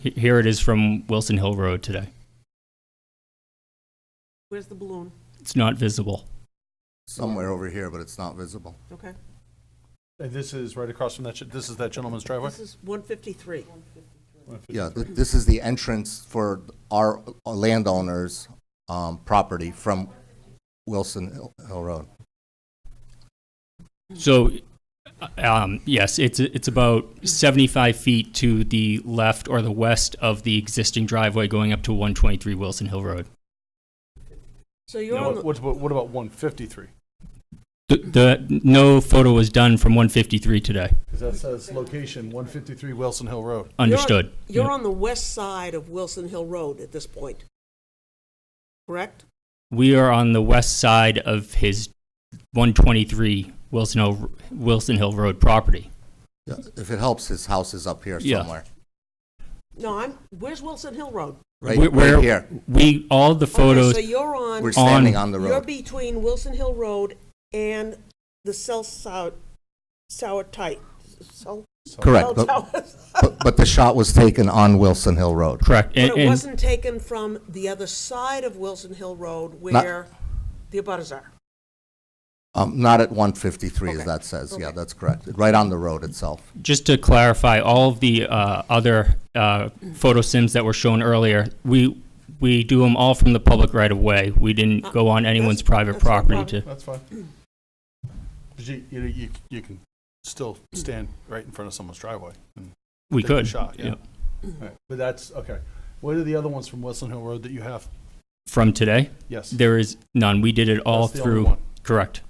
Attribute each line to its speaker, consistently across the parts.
Speaker 1: He- Here it is from Wilson Hill Road today.
Speaker 2: Where's the balloon?
Speaker 1: It's not visible.
Speaker 3: somewhere over here, but it's not visible.
Speaker 2: Okay.
Speaker 4: And this is right across from that, gen- this is that gentleman's driveway?
Speaker 2: This is 153.
Speaker 3: Yeah, th- this is the entrance for our uh, landowners' um, property from Wilson Hill- Hill Road.
Speaker 1: So, um, yes, it's, it's about 75 feet to the left or the west of the existing driveway going up to 123 Wilson Hill Road.
Speaker 2: So you're
Speaker 4: Now,
Speaker 2: on
Speaker 4: What
Speaker 2: the,
Speaker 4: what about, what about 153?
Speaker 1: The, the, no photo was done from 153 today.
Speaker 4: Because that says location, 153 Wilson Hill Road.
Speaker 1: Understood.
Speaker 2: you're
Speaker 1: Yeah.
Speaker 2: on the west side of Wilson Hill Road at this point, correct?
Speaker 1: We are on the west side of his 123 Wilson Hill, Wilson Hill Road property.
Speaker 3: Yeah, If it helps, his house is up here
Speaker 1: Yeah.
Speaker 3: somewhere.
Speaker 2: No, I'm, where's Wilson Hill Road?
Speaker 3: Right,
Speaker 1: Where- where
Speaker 3: right here.
Speaker 1: We, all the photos,
Speaker 2: Okay, so you're on,
Speaker 3: We're standing on the
Speaker 2: you're
Speaker 3: road.
Speaker 2: between Wilson Hill Road and the cell sour, sour tight, cell.
Speaker 3: Correct,
Speaker 2: cell
Speaker 3: but-
Speaker 2: towers.
Speaker 3: But, but the shot was taken on Wilson Hill Road.
Speaker 1: correct. and-
Speaker 2: But it
Speaker 1: and-
Speaker 2: wasn't taken from the other side of Wilson Hill Road
Speaker 3: Not-
Speaker 2: where the abutters are.
Speaker 3: Um, Not at 153, as
Speaker 2: Okay,
Speaker 3: that says. Yeah,
Speaker 2: okay.
Speaker 3: that's correct. Right on the road itself.
Speaker 1: Just to clarify, all of the uh, other uh, photo sims that were shown earlier, we, we do them all from the public right of way. We didn't go on anyone's
Speaker 2: That's-
Speaker 1: private
Speaker 2: that's no
Speaker 1: property
Speaker 2: problem.
Speaker 1: to,
Speaker 4: That's fine. 'Cause you, you, know, you, you can still stand right in front of someone's driveway. and
Speaker 1: we
Speaker 4: take a
Speaker 1: could.
Speaker 4: shot,
Speaker 1: yeah.
Speaker 4: Alright, But that's, okay. What are the other ones from Wilson Hill Road that you have?
Speaker 1: From today,
Speaker 4: Yes.
Speaker 1: there is none. We did it all
Speaker 4: That's the only
Speaker 1: through,
Speaker 4: one.
Speaker 1: correct.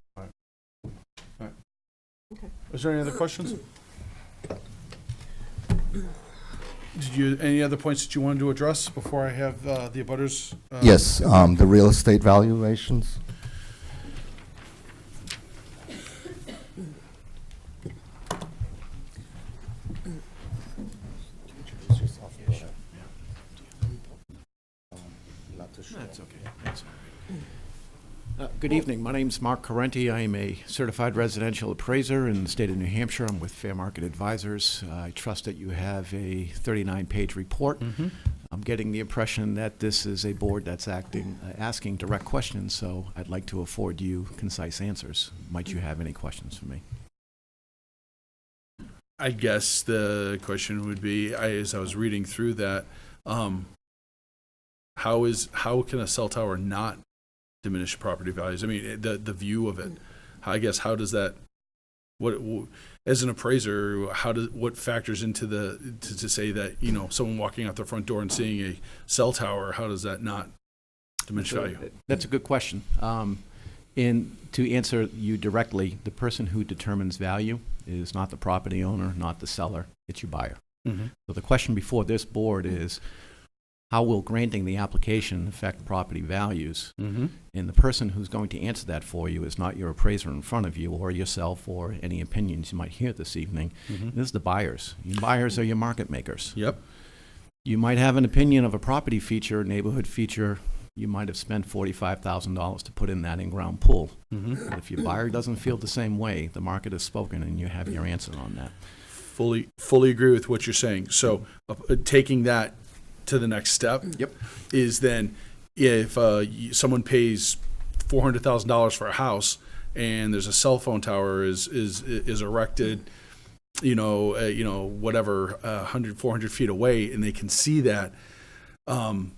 Speaker 4: Is there any other questions? Did you, any other points that you wanted to address before I have uh, the abutters? uh,
Speaker 5: Uh-huh.
Speaker 3: Yes, um, the real estate valuations.
Speaker 6: Uh, Good evening. My name's Mark Correnti. I am a certified residential appraiser in the state of New Hampshire. I'm with Fair Market Advisors. Uh, I trust that you have a 39-page report. I'm getting the impression that this is a board that's acting, uh, asking direct questions, so I'd like to afford you concise answers. Might you have any questions for me?
Speaker 5: I guess the question would be, I, as I was reading through that, um, how is, how can a cell tower not diminish property values? I mean, eh, the, the view of it, I guess, how does that, what, wh- as an appraiser, how does, what factors into the, to, to say that, you know, someone walking out their front door and seeing a cell tower, how does that not diminish value?
Speaker 6: That's a good question. Um, And to answer you directly, the person who determines value is not the property owner, not the seller, it's your buyer.
Speaker 5: Mhm.
Speaker 6: So the question before this board is, how will granting the application affect property values?
Speaker 5: Mm-hmm.
Speaker 6: And the person who's going to answer that for you is not your appraiser in front of you, or yourself, or any opinions you might hear this evening. This is the buyers. Your buyers are your market makers.
Speaker 5: Yep.
Speaker 6: You might have an opinion of a property feature, neighborhood feature. You might have spent $45,000 to put in that in-ground pool.
Speaker 5: Mm-hmm.
Speaker 6: But if your buyer doesn't feel the same way, the market has spoken, and you have your answer on that.
Speaker 5: Fully, fully agree with what you're saying. So uh, uh, taking that to the next step.
Speaker 6: Yep.
Speaker 5: Is then if uh, y- someone pays four hundred thousand dollars for a house and there's a cell phone tower is is is erected, you know, uh, you know, whatever, uh, 100, 400 feet away, and they can see that. Um,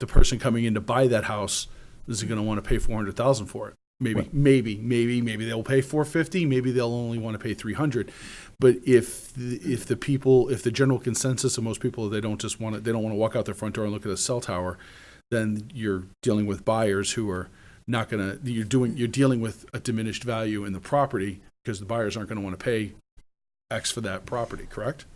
Speaker 5: the person coming in to buy that house is going to want to pay four hundred thousand for it. Maybe, maybe, maybe, maybe they'll pay four fifty. Maybe they'll only want to pay three hundred. But if the, if the people, if the general consensus of most people, they don't just want to, they don't want to walk out their front door and look at a cell tower, then you're dealing with buyers who are not going to. You're doing, you're dealing with a diminished value in the property because the buyers aren't going to want to pay X for that property. Correct?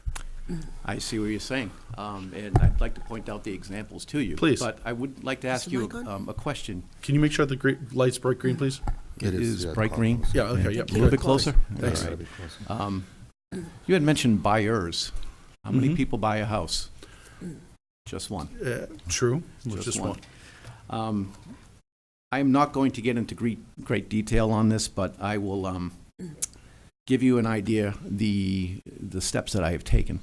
Speaker 6: I see what you're saying, um, and I'd like to point out the examples to you.
Speaker 5: Please.
Speaker 6: But I would like to ask
Speaker 2: the
Speaker 6: you
Speaker 2: mic on?
Speaker 6: um, a question.
Speaker 5: Can you make sure the green, lights bright green, please?
Speaker 3: It is, yeah,
Speaker 6: bright
Speaker 3: close.
Speaker 6: green.
Speaker 5: Yeah. Okay.
Speaker 6: Yeah,
Speaker 5: Yep.
Speaker 6: A little
Speaker 5: good.
Speaker 6: bit closer?
Speaker 5: Thanks.
Speaker 6: All right. Um, Mm-hmm. You had mentioned buyers. How many
Speaker 5: Mhm.
Speaker 6: people buy a house? Just one.
Speaker 5: Uh, true. Just, one.
Speaker 6: Um, I am not going to get into great, great detail on this, but I will um, give you an idea, the, the steps that I have taken.